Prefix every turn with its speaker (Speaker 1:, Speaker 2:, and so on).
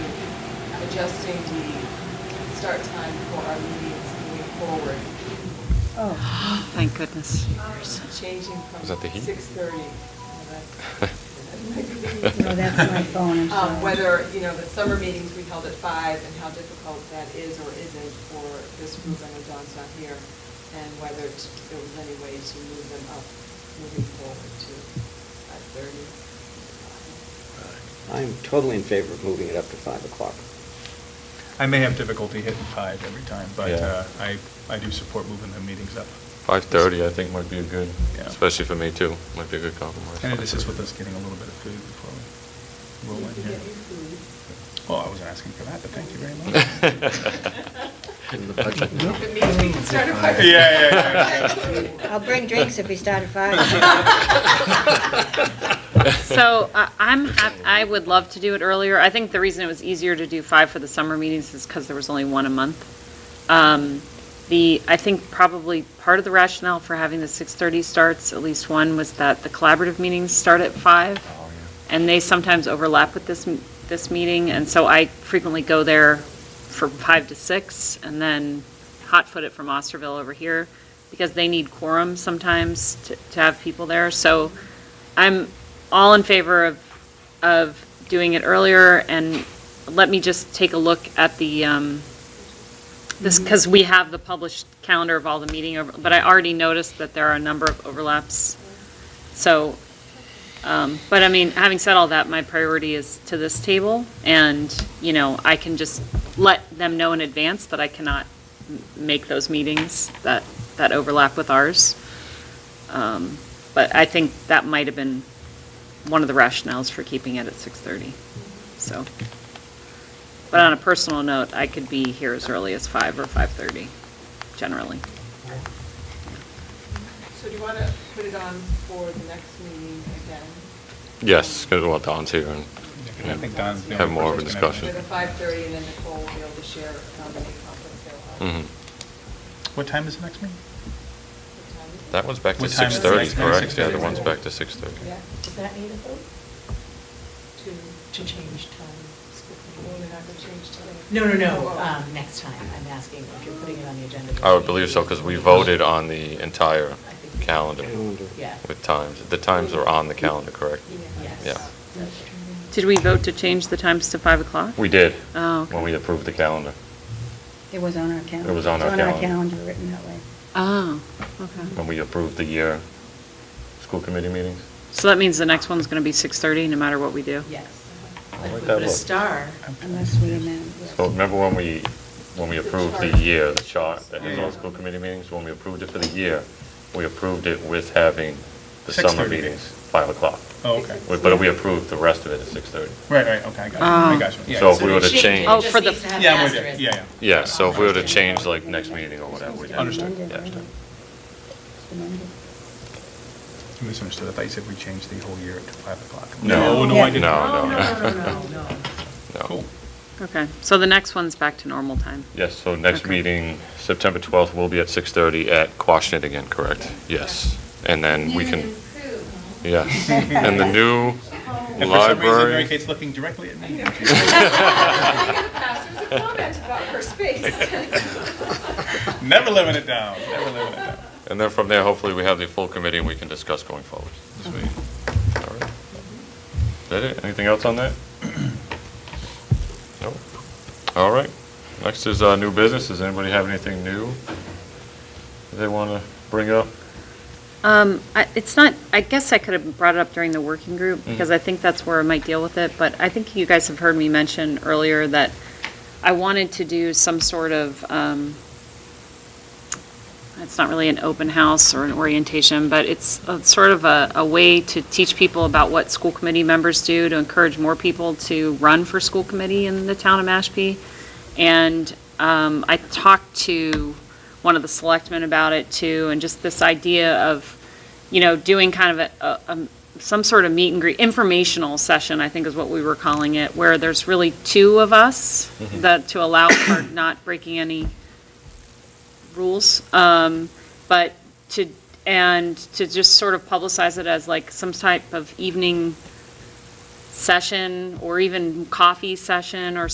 Speaker 1: adjusting the start time for our meetings moving forward,
Speaker 2: Oh,
Speaker 3: Thank goodness.
Speaker 1: changing from
Speaker 4: Was that the heat?
Speaker 1: 6:30.
Speaker 2: no, that's my phone, I'm sorry.
Speaker 1: Um, Whether, you know, the summer meetings we held at five and how difficult that is or isn't for this group, I know John's not here, and whether t- there was any way to move them up moving forward to 5:30.
Speaker 5: I'm totally in favor of moving it up to 5 o'clock.
Speaker 6: I may have difficulty hitting five every time, but
Speaker 4: Yeah.
Speaker 6: uh, I, I do support moving the meetings up.
Speaker 4: 5:30, I think might be a good,
Speaker 6: Yeah.
Speaker 4: especially for me too, might be a good compromise.
Speaker 6: And this is
Speaker 4: 5:30.
Speaker 6: with us getting a little bit of food before we roll
Speaker 1: You
Speaker 6: in
Speaker 1: can
Speaker 6: here.
Speaker 1: get your food.
Speaker 6: Well, I wasn't asking for that, but thank you very much.
Speaker 1: If it means we can start at
Speaker 6: Yeah,
Speaker 1: five.
Speaker 6: yeah, yeah.
Speaker 2: I'll bring drinks if we start at five.
Speaker 3: So uh, I- I'm, hap- I would love to do it earlier. I think the reason it was easier to do five for the summer meetings is because there was only one a month. Um, The, I think probably part of the rationale for having the 6:30 starts, at least one, was that the collaborative meetings start at five.
Speaker 4: Oh,
Speaker 3: and they sometimes overlap with this, m- this meeting, and so I frequently go there for five to six, and then hot-foot it from Osterville over here, because they need quorum sometimes to, to have people there, so I'm all in favor of, of doing it earlier, and let me just take a look at the, um, this, because we have the published calendar of all the meeting, over- but I already noticed that there are a number of overlaps, so um, But I mean, having said all that, my priority is to this table, and, you know, I can just let them know in advance that I cannot m- make those meetings that, that overlap with ours. Um, But I think that might have been one of the rationales for keeping it at 6:30, so. But on a personal note, I could be here as early as 5 or 5:30, generally.
Speaker 1: So do you want to put it on for the next meeting again?
Speaker 4: Yes, because well, Don's here and
Speaker 6: I think Don's the
Speaker 4: Have
Speaker 6: only
Speaker 4: more of a
Speaker 6: person that's
Speaker 1: So
Speaker 6: gonna-
Speaker 4: discussion.
Speaker 1: the 5:30, and then Nicole will be able to share how many conflicts there are.
Speaker 4: Mhm.
Speaker 6: What time is the next meeting?
Speaker 1: What time is it?
Speaker 4: that one's back to
Speaker 6: What time is the
Speaker 4: 6:30,
Speaker 6: next meeting?
Speaker 4: correct? Yeah, the
Speaker 6: 6:30.
Speaker 4: one's back to 6:30.
Speaker 1: Yeah,
Speaker 7: Does that need a vote
Speaker 1: two.
Speaker 7: to change time?
Speaker 1: Well, we're not going to change today.
Speaker 7: No, no, no,
Speaker 1: Oh, oh.
Speaker 7: um, next time, I'm asking if you're putting it on the agenda.
Speaker 4: I would believe so, because we voted on the entire calendar
Speaker 5: Calendar.
Speaker 7: Yeah.
Speaker 4: with times. The times are on the calendar, correct?
Speaker 7: Yes.
Speaker 4: Yeah.
Speaker 3: Did we vote to change the times to 5 o'clock?
Speaker 4: We did,
Speaker 3: Oh, okay.
Speaker 4: when we approved the calendar.
Speaker 2: It was on our calendar.
Speaker 4: It was on our
Speaker 2: It's on our
Speaker 4: calendar.
Speaker 2: calendar, written that way.
Speaker 3: Oh, okay.
Speaker 4: when we approved the year school committee meetings?
Speaker 3: So that means the next one's going to be 6:30, no matter what we do?
Speaker 7: Yes.
Speaker 4: I
Speaker 7: But if
Speaker 4: like
Speaker 7: we
Speaker 4: that
Speaker 7: put a
Speaker 4: look.
Speaker 7: star,
Speaker 2: Unless we amend. yes.
Speaker 4: So remember when we, when we approved the year, the chart that has all
Speaker 6: Yeah.
Speaker 4: school committee meetings, when we approved it for the year, we approved it with having the summer
Speaker 6: 6:30.
Speaker 4: meetings, 5 o'clock.
Speaker 6: Oh, okay.
Speaker 4: We- But we approved the rest of it at 6:30.
Speaker 6: Right, right, okay, I got you, I
Speaker 4: Um,
Speaker 3: Ah.
Speaker 6: got you. Yeah,
Speaker 4: So if
Speaker 6: so
Speaker 4: we were
Speaker 7: it
Speaker 4: to
Speaker 7: should-
Speaker 4: change.
Speaker 3: Oh,
Speaker 7: It just
Speaker 3: for the-
Speaker 7: needs to have
Speaker 6: Yeah,
Speaker 7: an
Speaker 6: I'm with you,
Speaker 7: asterisk.
Speaker 6: yeah, yeah.
Speaker 4: Yeah, so if we were to change like next meeting or whatever. we did.
Speaker 6: Understood.
Speaker 4: Yeah.
Speaker 2: It's amended.
Speaker 6: I Misunderstood, I thought you said we changed the whole year to five o'clock.
Speaker 4: No.
Speaker 6: No, I
Speaker 2: Yeah.
Speaker 6: didn't.
Speaker 4: Oh, No, no.
Speaker 7: no, no, no.
Speaker 4: No.
Speaker 6: Cool.
Speaker 3: Okay, so the next one's back to normal time.
Speaker 4: Yes, so next
Speaker 3: Okay.
Speaker 4: meeting, September 12th, will be at 6:30 at Quashnet again, correct? Yes. And then we can, yes. And the new
Speaker 6: And for some reason, Mary
Speaker 4: library,
Speaker 6: Kate's looking directly at me.
Speaker 1: I think in the past, there was a comment about her space.
Speaker 6: Never living it down, never living it down.
Speaker 4: and then from there, hopefully, we have the full committee and we can discuss going forward.
Speaker 6: Sweet.
Speaker 4: All right. Is that it? Anything else on that? No? All right. Next is uh, new business. Does anybody have anything new they want to bring up?
Speaker 3: Um, I- It's not, I guess I could have brought it up during the working group,
Speaker 4: Mm-hmm.
Speaker 3: because I think that's where I might deal with it, but I think you guys have heard me mention earlier that I wanted to do some sort of, um, it's not really an open house or an orientation, but it's a- sort of a a way to teach people about what school committee members do, to encourage more people to run for school committee in the town of Mashpee. And um, I talked to one of the selectmen about it too, and just this idea of, you know, doing kind of a, a, um, some sort of meet and greet, informational session, I think is what we were calling it, where there's really two of us, that, to allow for not breaking any rules. Um, But to, and to just sort of publicize it as like some type of evening session, or even coffee session, or